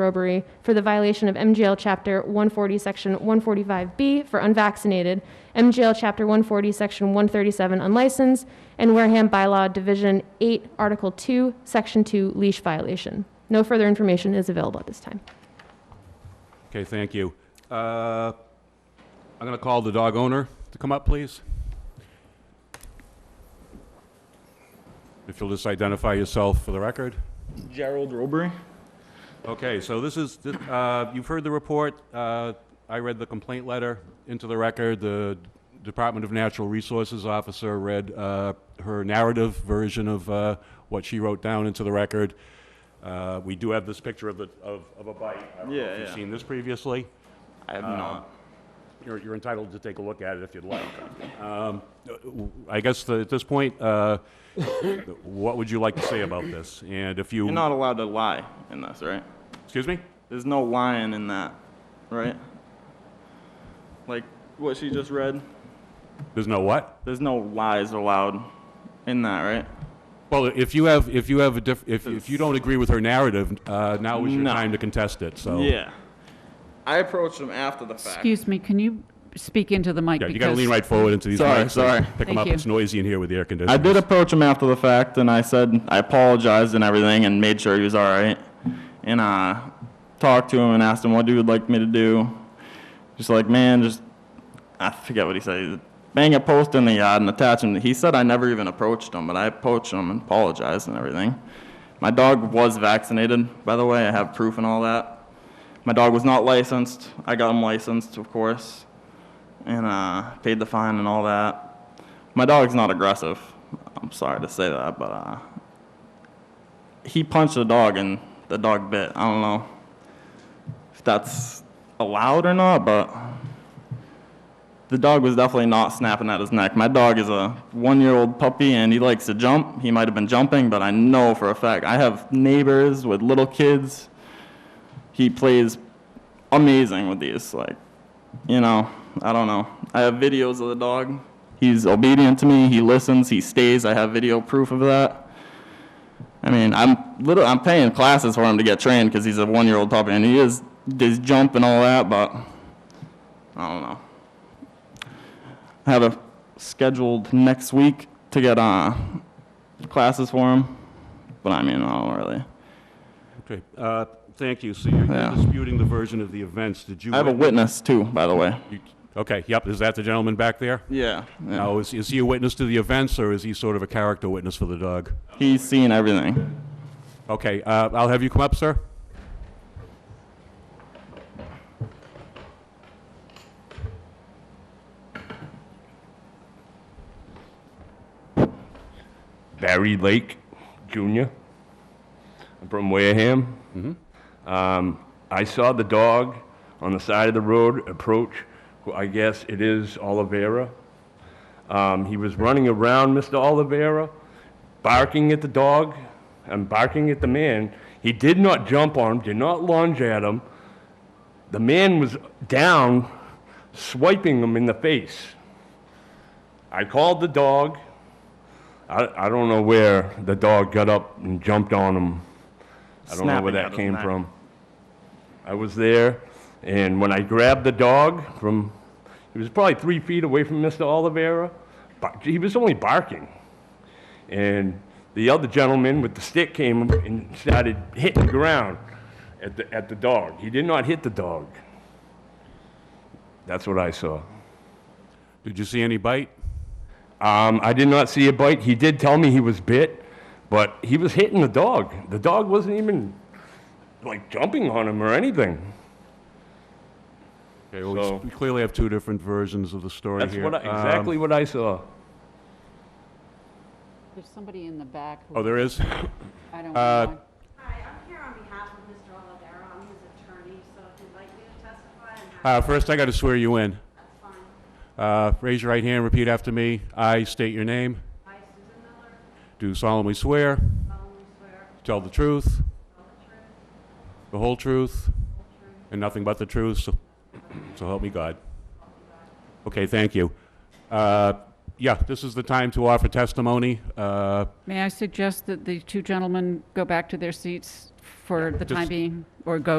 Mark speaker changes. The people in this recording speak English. Speaker 1: robbery for the violation of MGL Chapter 140, Section 145B for unvaccinated, MGL Chapter 140, Section 137 unlicensed, and Wareham Bylaw Division 8, Article 2, Section 2 leash violation. No further information is available at this time.
Speaker 2: Okay, thank you. Uh, I'm going to call the dog owner to come up, please. If you'll just identify yourself for the record.
Speaker 3: Gerald Robbery.
Speaker 2: Okay, so this is, th- uh, you've heard the report. Uh, I read the complaint letter into the record. The Department of Natural Resources officer read uh, her narrative version of uh, what she wrote down into the record. Uh, We do have this picture of the, of of a bite. I don't know
Speaker 3: Yeah,
Speaker 2: if
Speaker 3: yeah.
Speaker 2: You've seen this previously. Um,
Speaker 3: I have not.
Speaker 2: You're, you're entitled to take a look at it if you'd like. Um, I guess the- at this point, uh, what would you like to say about this? And if you,
Speaker 3: You're not allowed to lie in this, right?
Speaker 2: excuse me?
Speaker 3: There's no lying in that, right? Like what she just read.
Speaker 2: There's no what?
Speaker 3: There's no lies allowed in that, right?
Speaker 2: Well, if you have, if you have a diff, if, if you don't agree with her narrative, uh, now is your
Speaker 3: No.
Speaker 2: time to contest it, so.
Speaker 3: Yeah. I approached him after the fact.
Speaker 4: Excuse me, can you speak into the mic?
Speaker 2: Yeah, you gotta
Speaker 4: because-
Speaker 2: lean right forward into these
Speaker 3: Sorry,
Speaker 2: mics.
Speaker 3: sorry.
Speaker 2: Pick them
Speaker 4: Thank
Speaker 2: up,
Speaker 4: you.
Speaker 2: it's noisy in here with the air conditioning.
Speaker 3: I did approach him after the fact, and I said I apologized and everything, and made sure he was all right, and uh, talked to him and asked him what he would like me to do. Just like man, just I forget what he said. He said, Bang a post in the yard and attach him. He said I never even approached him, but I approached him and apologized and everything. My dog was vaccinated, by the way. I have proof and all that. My dog was not licensed. I got him licensed, of course, and uh, paid the fine and all that. My dog's not aggressive. I'm sorry to say that, but uh, he punched the dog and the dog bit. I don't know if that's allowed or not, but the dog was definitely not snapping at his neck. My dog is a one year old puppy and he likes to jump. He might have been jumping, but I know for a fact. I have neighbors with little kids. He plays amazing with these. Like, you know, I don't know. I have videos of the dog. He's obedient to me. He listens. He stays. I have video proof of that. I mean, I'm little. I'm paying classes for him to get trained because he's a one-year-old puppy, and he is does jump and all that. But I don't know. I have a scheduled next week to get uh classes for him, but I mean, I don't really.
Speaker 2: Okay, uh, thank you, so you're
Speaker 3: Yeah.
Speaker 2: you're disputing the version of the events, did you?
Speaker 3: I have a
Speaker 2: wit-
Speaker 3: witness too, by the way.
Speaker 2: you- Okay, yep, is that the gentleman back there?
Speaker 3: Yeah. yeah.
Speaker 2: Now, is, is he a witness to the events, or is he sort of a character witness for the dog?
Speaker 3: He's seen everything.
Speaker 2: Okay, uh, I'll have you come up, sir.
Speaker 5: Barry Lake Jr. I'm from Wareham. Um, I saw the dog on the side of the road approach, who I guess it is Oliveira. Um, he was running around Mr. Oliveira, barking at the dog and barking at the man. He did not jump on him, did not lunge at him. The man was down, swiping him in the face. I called the dog. I, I don't know where the dog got up and jumped on him. I don't know where
Speaker 3: Snapping at
Speaker 5: that
Speaker 3: his
Speaker 5: came
Speaker 3: neck.
Speaker 5: from. I was there, and when I grabbed the dog from, he was probably three feet away from Mr. Oliveira, but he was only barking. And the other gentleman with the stick came and started hitting the ground at the, at the dog. He did not hit the dog. That's what I saw.
Speaker 2: Did you see any bite?
Speaker 5: Um, I did not see a bite. He did tell me he was bit, but he was hitting the dog. The dog wasn't even like jumping on him or anything.
Speaker 2: Okay, well,
Speaker 5: So-
Speaker 2: we s- we clearly have two different versions of the story
Speaker 5: That's
Speaker 2: here.
Speaker 5: what I,
Speaker 2: Um,
Speaker 5: exactly what I saw.
Speaker 4: There's somebody in the back
Speaker 2: Oh,
Speaker 4: who,
Speaker 2: there is?
Speaker 4: I don't
Speaker 2: uh,
Speaker 4: know.
Speaker 6: Hi, I'm here on behalf of Mr. Olivera. I'm his attorney, so if you'd like me to testify, I'm happy.
Speaker 2: Uh, First, I got to swear you in.
Speaker 6: That's fine.
Speaker 2: Uh, Raise your right hand, repeat after me. I state your name.
Speaker 6: I, Susan Miller,
Speaker 2: Do solemnly swear,
Speaker 6: solemnly swear
Speaker 2: tell the truth,
Speaker 6: to tell the truth,
Speaker 2: the whole truth,
Speaker 6: the truth,
Speaker 2: and nothing but the truth, so so help me God. Okay, thank you. Uh, Yeah, this is the time to offer testimony. Uh,
Speaker 4: May I suggest that the two gentlemen go back to their seats for the time
Speaker 2: just-
Speaker 4: being, or go